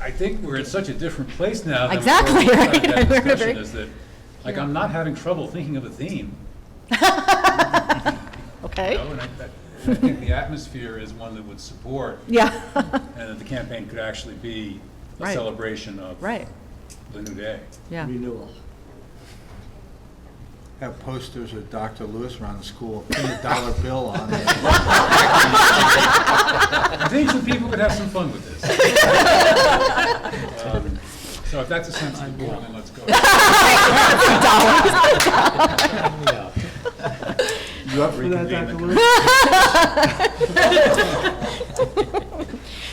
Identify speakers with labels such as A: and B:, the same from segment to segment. A: I think we're in such a different place now than we were
B: Exactly,
A: when we started
B: right?
A: that
B: We're in a
A: discussion,
B: very-
A: is that, like, I'm not having trouble thinking of a theme. you
B: Okay?
A: know, And I that- I think the atmosphere is one that would support,
B: Yeah,
A: and that the campaign could actually be a
B: Right.
A: celebration of
B: right,
A: the new day.
B: yeah.
C: renewal.
D: Have posters of Dr. Lewis around the school, put a dollar bill on it.
A: I think some people could have some fun with this. Um, So if that's a sense of the board, then let's go.
D: You up for
A: Reconvene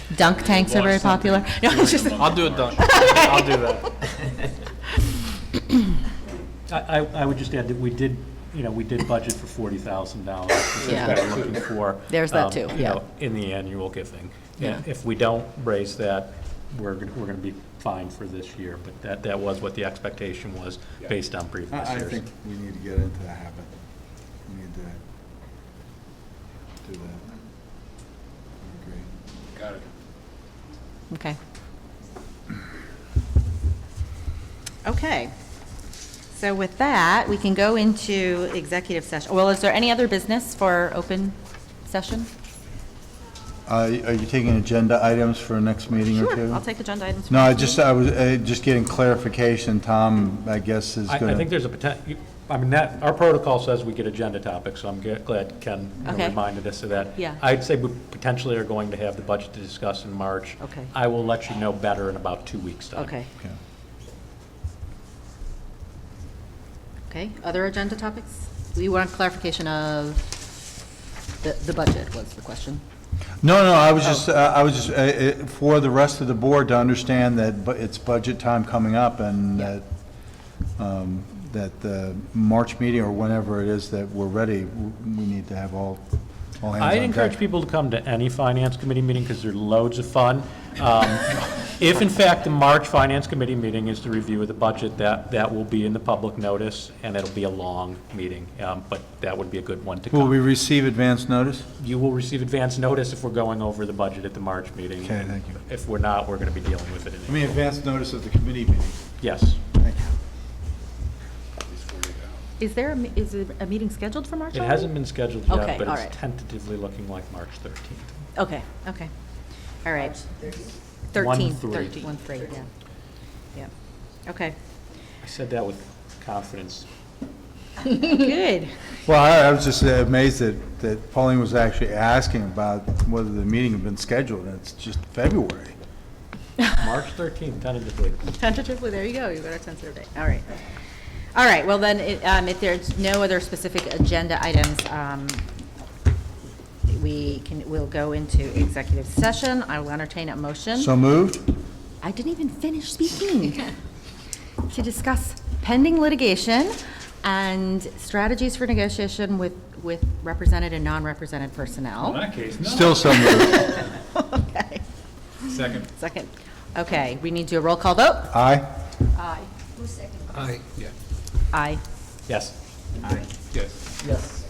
A: the
B: Dunk tanks are very
A: Launch something
B: popular. No,
A: during
B: it's just,
A: the month
E: I'll do a
A: of
E: dunk.
A: March.
E: I'll do that.
F: I, I- I would just add that we did, you know, we did budget for forty thousand dollars, which is
B: Yeah.
F: what we're looking for.
B: There's that
F: um,
B: too,
F: you
B: yeah.
F: know, In the annual giving.
B: Yeah.
F: And if we don't raise that, we're, gonna- we're gonna be fine for this year, but that, that was what the expectation was,
A: Yeah.
F: based on previous years.
D: I, I think we need to get into that habit. We need to do that. I agree.
A: Got it.
B: okay.
G: Okay. So with that, we can go into executive session. Well, is there any other business for open session?
D: Uh, Are you taking agenda items for next meeting or two?
G: Sure, I'll take agenda items.
D: No, I just, I was, uh, just getting clarification, Tom, I guess is
F: I, I think
D: gonna,
F: there's a potential, I mean, that, our protocol says we get agenda topics, so I'm ge- glad Ken you know,
G: Okay.
F: reminded us of that.
G: Yeah.
F: I'd say we potentially are going to have the budget to discuss in March.
G: Okay.
F: I will let you know better in about two weeks' time.
G: Okay,
D: Okay.
G: okay. Other agenda topics? We want clarification of the, the budget was the question.
D: no, no, I was
F: Oh.
D: just, uh, I was just, uh, uh, for the rest of the board to understand that bu- it's budget time coming up and that, um, that the March meeting or whenever it is that we're ready, w- we need to have all, all hands on
F: I'd
D: deck.
F: encourage people to come to any finance committee meeting because they're loads of fun. Um, If in fact the March finance committee meeting is the review of the budget, that, that will be in the public notice and it'll be a long meeting, um, but that would be a good one to
D: Will we
F: come.
D: receive advance notice?
F: You will receive advance notice if we're going over the budget at the March meeting.
D: Okay, thank you.
F: If we're not, we're going to be dealing with it in,
D: I mean, advance notice of the committee meeting.
F: yes.
D: Thank you.
G: Is there, a me- is a a meeting scheduled for March?
F: It
G: already?
F: hasn't been scheduled
G: Okay,
F: yet, but
G: all right.
F: it's tentatively looking like March 13th.
G: Okay, okay. All right.
F: One
G: 13,
F: three.
G: 13. One three, yeah. Yeah. Okay,
F: I said that with confidence.
G: good.
D: Well, I I was just uh, amazed that, that Pauline was actually asking about whether the meeting had been scheduled, and it's just February.
F: March 13th, tentatively.
G: Tentatively, there you go, you got a tentative date, all right. All right, well then, it, um, if there's no other specific agenda items, um, we can, we'll go into executive session, I will entertain a motion.
D: So moved?
G: I didn't even finish speaking. To discuss pending litigation and strategies for negotiation with, with represented and non-represented
A: In
G: personnel.
A: that case, no.
D: Still so moved.
G: Okay,
A: Second.
G: second, okay, we need to do a roll call vote.
D: Aye?
G: Aye.
A: Aye. Yeah,
G: Aye.
F: Yes.
A: yes.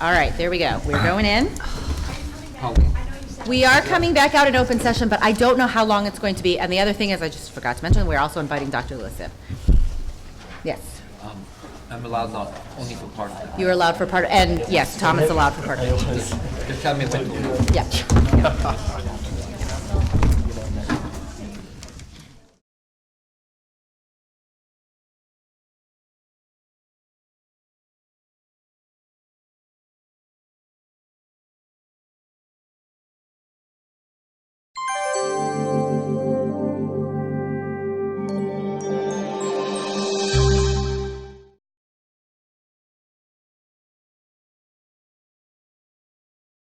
G: All right, there we go. We're going in. We are coming back out in open session, but I don't know how long it's going to be. And the other thing is, I just forgot to mention, we're also inviting Dr. Lewis in. Yes,
E: Um, I'm allowed not, only for part of
G: you are allowed for part, and yes, Tom is allowed for part.
E: it. Just tell me when to.
G: Yeah.